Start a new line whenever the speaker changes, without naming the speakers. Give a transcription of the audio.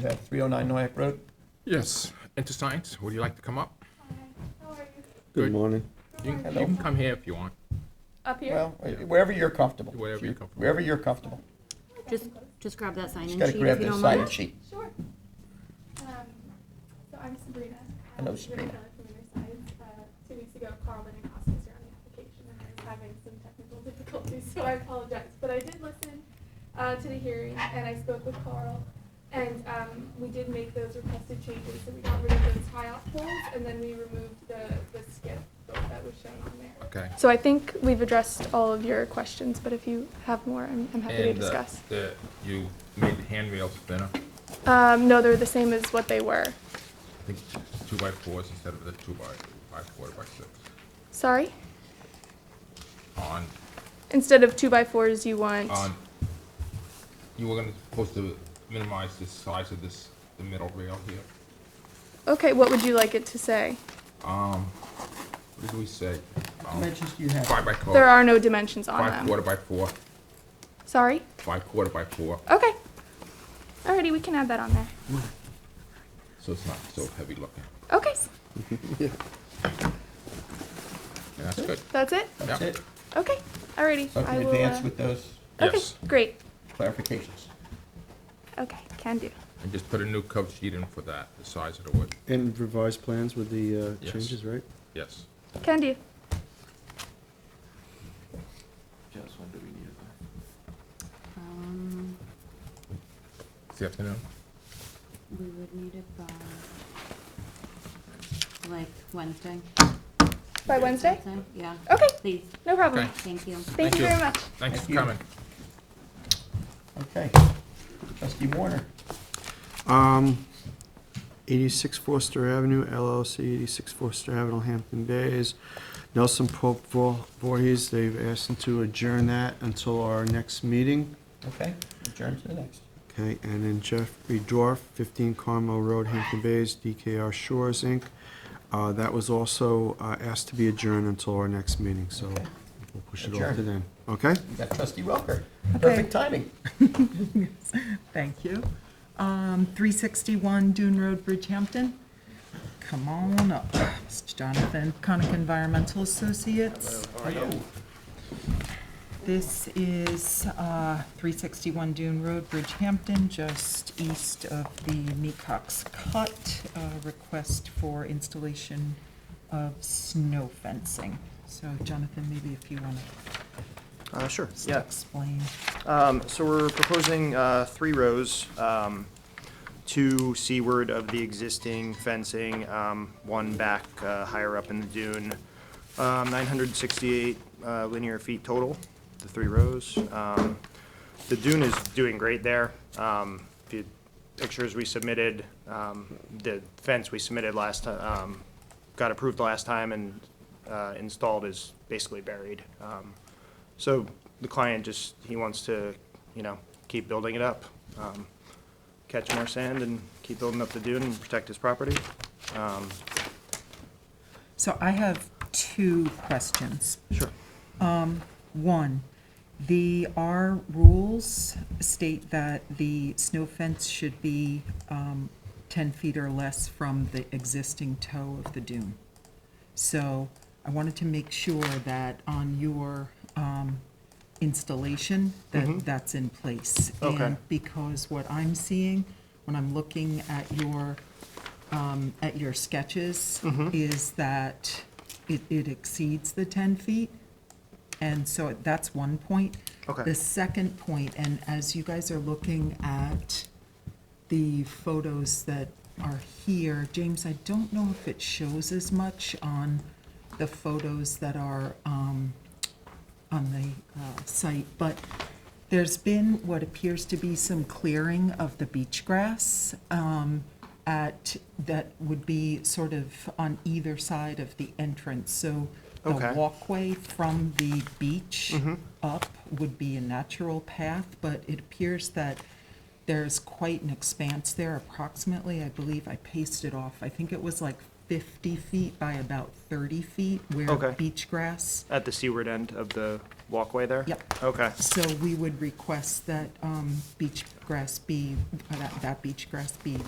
Is that 309 Noack Road?
Yes, into science, would you like to come up?
Good morning.
You can, you can come here if you want.
Up here?
Well, wherever you're comfortable.
Wherever you're comfortable.
Wherever you're comfortable.
Just, just grab that sign-in
Just
sheet
gotta grab
if you
the
don't
sign
mind.
sheet.
Sure. Um, So I'm Sabrina.
Hello,
I'm
Sabrina.
From Riverside. Uh, Two weeks ago, Carl and Acosta was here on the application, and I was having some technical difficulties, so I apologize. But I did listen uh, to the hearing, and I spoke with Carl, and um, we did make those requested changes, so we got rid of those tie-off poles, and then we removed the, the skip that was shown on there.
Okay.
So I think we've addressed all of your questions, but if you have more, I'm, I'm happy to
And uh,
discuss.
the- You made the handrails thinner,
Um, no, they're the same as what they were.
I think two by fours instead of the two by, by four by six.
Sorry?
On,
Instead of two by fours, you want.
on, you were gonna, supposed to minimize the size of this, the middle rail here.
Okay, what would you like it to say?
Um, what did we say? Um,
Dimensions do you have?
Five by
There
four,
are no dimensions on
five
them.
quarter by four,
Sorry?
five quarter by four,
Okay. Alrighty, we can add that on there.
so it's not so heavy looking.
Okay,
Yeah, that's good.
that's it?
That's
Yeah.
it.
Okay, alrighty.
So I
I
can
will.
advance
uh,
with those
Okay,
Yes.
great.
clarifications.
Okay, can do.
And just put a new cover sheet in for that, the size of the wood,
And revised plans with the uh,
Yes.
changes, right?
yes.
Can do.
Just when do we need it?
Um,
This afternoon?
we would need it by, like, Wednesday.
By Wednesday?
Wednesday? Yeah,
Okay,
please,
no problem.
Okay.
thank you.
Thank you very much.
Thanks
Thank
for
you.
coming.
Okay. Trustee Warner,
Um, 86 Forster Avenue LLC, 86 Forster Avenue, Hampton Bays. Nelson Pope Vor- Voorhees, they've asked to adjourn that until our next meeting.
okay, adjourn to the next.
Okay, and then Jeffrey Dorf, 15 Carmel Road, Hampton Bays, DKR Shores, Inc. Uh, That was also uh, asked to be adjourned until our next meeting, so
Okay.
we'll push it off to
Adjourn.
then. Okay?
We got trustee Welker.
Okay.
Perfect timing.
Thank you. Um, 361 Dune Road, Bridgehampton. Come on up, Mr. Donovan, Conic Environmental Associates. This is uh, 361 Dune Road, Bridgehampton, just east of the Meacox Cut. uh, Request for installation of snow fencing. So Jonathan, maybe if you want
Uh, sure,
to
yeah.
explain.
Um, so we're proposing, uh, three rows, um, two seaward of the existing fencing, um, one back, uh, higher up in the dune. Um, nine hundred sixty-eight, uh, linear feet total, the three rows. Um, the dune is doing great there. Um, the pictures we submitted, um, the fence we submitted last, ti- um, got approved last time and, uh, installed is basically buried. Um, so the client just, he wants to, you know, keep building it up, um, catch more sand and keep building up the dune and protect his property. Um,
So I have two questions. Um,
Sure.
One, the, our rules state that the snow fence should be um, 10 feet or less from the existing toe of the dune. So I wanted to make sure that on your um, installation, that that's in place.
Mm-hmm. Okay.
And because what I'm seeing, when I'm looking at your, um, at your sketches, is that it it exceeds the 10 feet. And so that's one point.
Okay.
The second point, and as you guys are looking at the photos that are here, James, I don't know if it shows as much on the photos that are um, on the uh, site, but there's been what appears to be some clearing of the beach grass um, at, that would be sort of on either side of the entrance. So the
Okay. Mm-hmm.
walkway from the beach up would be a natural path, but it appears that there's quite an expanse there approximately, I believe I pasted off, I think it was like 50 feet by about 30 feet where
Okay.
beach grass
At the seaward end of the, walkway there?
Yep.
Okay,
So we would request uh, that um, beach grass be, that that beach grass be